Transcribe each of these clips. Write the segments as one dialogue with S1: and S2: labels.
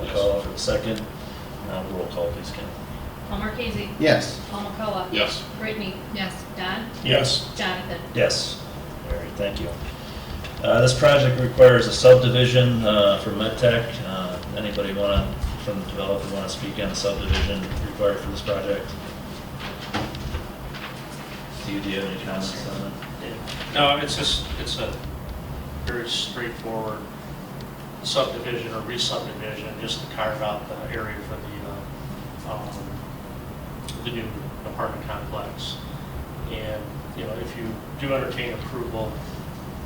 S1: a second. Um, Roll call, please, Kim.
S2: Paul Marquesi.
S3: Yes.
S2: Paul McCullough.
S4: Yes.
S2: Brittany. Yes. Don.
S4: Yes.
S2: Jonathan.
S1: Yes. All right, thank you. Uh, This project requires a subdivision uh, for MedTech. Uh, Anybody want to, from the developer, want to speak on the subdivision required for this project? Do you, do you have any comments on it?
S4: No, it's just, it's a very straightforward subdivision or re-subdivision, just to carve out the area for the, uh, um, the new apartment complex. And, you know, if you do entertain approval,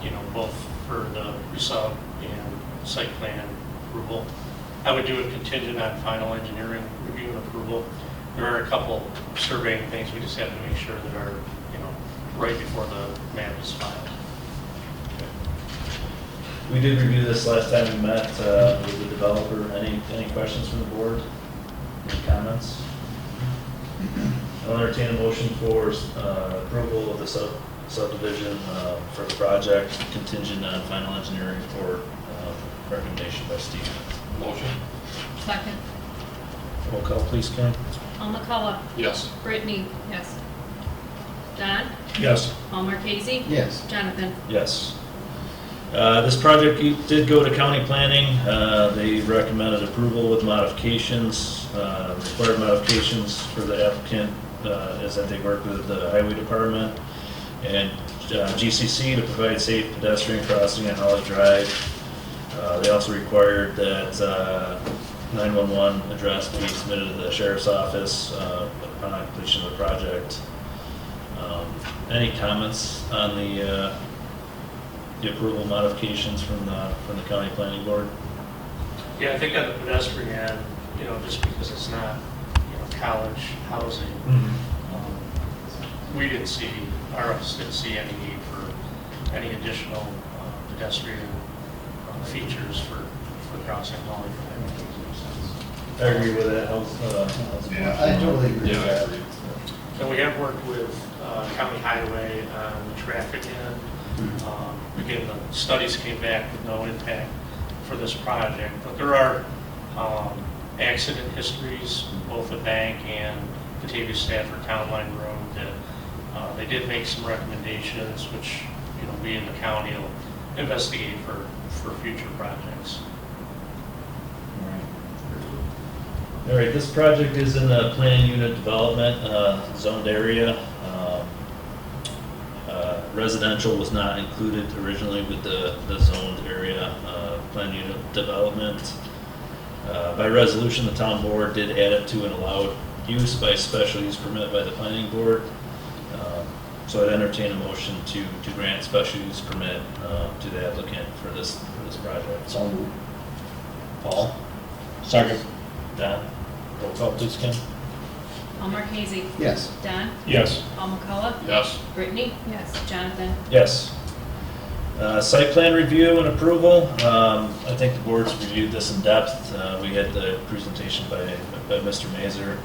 S4: you know, both for the resub and site plan approval, I would do a contingent on final engineering review and approval. There are a couple surveying things we just have to make sure that are, you know, right before the map is filed.
S1: We did review this last time we met uh, with the developer. Any, any questions from the board? Any comments? I'll entertain a motion for uh, approval of the sub- subdivision uh, for the project contingent on final engineering report uh, recommendation by Steve.
S4: Motion?
S2: Second.
S1: Roll call, please, Karen.
S2: Paul McCullough.
S4: Yes.
S2: Brittany. Yes. Don.
S4: Yes.
S2: Paul Marquesi.
S3: Yes.
S2: Jonathan.
S1: Yes. Uh, This project did go to county planning. Uh, They recommended approval with modifications. Uh, Required modifications for the applicant uh, is that they work with the highway department and uh, GCC to provide safe pedestrian crossing on Holly Drive. Uh, They also required that uh, 911 address be submitted to the sheriff's office uh, upon completion of the project. Um, Any comments on the uh, the approval modifications from the, from the county planning board?
S4: Yeah, I think on the pedestrian end, you know, just because it's not, you know, college housing,
S1: Mm-hmm.
S4: um, we didn't see, our office didn't see any need for any additional uh, pedestrian uh, features for, for crossing Holly Drive.
S1: I agree with that, how's, uh, how's the board?
S3: I totally agree with that.
S4: And we have worked with uh, County Highway on the traffic end. Um, Again, the studies came back with no impact for this project, but there are um, accident histories, both the bank and Batavia Stafford Town Line Road, that uh, they did make some recommendations, which, you know, we in the county will investigate for, for future projects.
S1: All right, this project is in the plan unit development, uh, zoned area. Um, uh, Residential was not included originally with the, the zoned area, uh, plan unit development. Uh, By resolution, the town board did add it to an allowed use by special use permit by the planning board. Um, So I'd entertain a motion to, to grant special use permit uh, to the applicant for this, for this project. So moved. Paul? Second. Don? Roll call, please, Kim.
S2: Paul Marquesi.
S3: Yes.
S2: Don.
S4: Yes.
S2: Paul McCullough.
S4: Yes.
S2: Brittany. Yes. Jonathan.
S1: Yes. Uh, Site plan review and approval. Um, I think the board's reviewed this in depth. Uh, We had the presentation by by Mr. Mazer.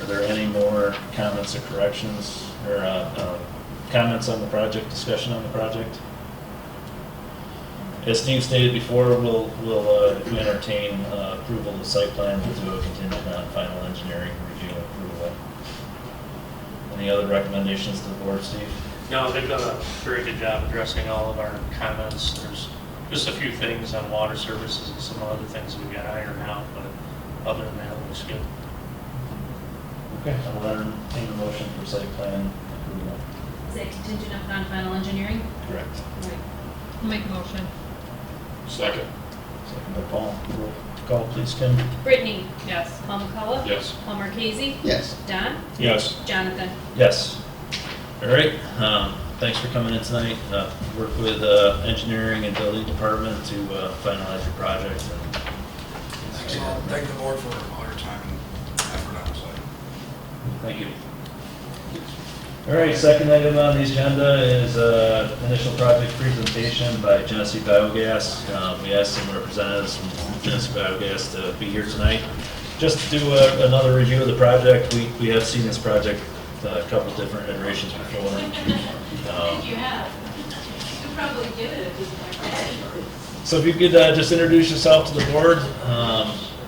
S1: Are there any more comments or corrections or uh, uh, comments on the project, discussion on the project? As Steve stated before, we'll, we'll uh, if we entertain uh, approval of the site plan, we'll do a contingent on final engineering review and approval. Any other recommendations to the board, Steve?
S4: No, they've done a very good job addressing all of our comments. There's just a few things on water services and some other things we got ironed out, but other than that, it looks good.
S1: Okay, I'll entertain a motion for site plan approval.
S2: Is that contingent upon final engineering?
S1: Correct.
S2: Right. Make motion.
S4: Second.
S1: Second by Paul. Roll Call, please, Kim.
S2: Brittany. Yes. Paul McCullough.
S4: Yes.
S2: Paul Marquesi.
S3: Yes.
S2: Don.
S4: Yes.
S2: Jonathan.
S1: Yes. All right, um, thanks for coming in tonight. Uh, Work with uh, engineering and building department to uh, finalize your project.
S5: Thanks all, thank the board for all your time and effort on the site.
S1: Thank you. All right, second item on the agenda is uh, initial project presentation by Genesee Biogas. Um, We asked some representatives from Genesee Biogas to be here tonight. Just to do a- another review of the project, we we have seen this project uh, a couple different iterations before. Um,
S6: think you have. You could probably give it a good.
S1: So if you could uh, just introduce yourself to the board, um,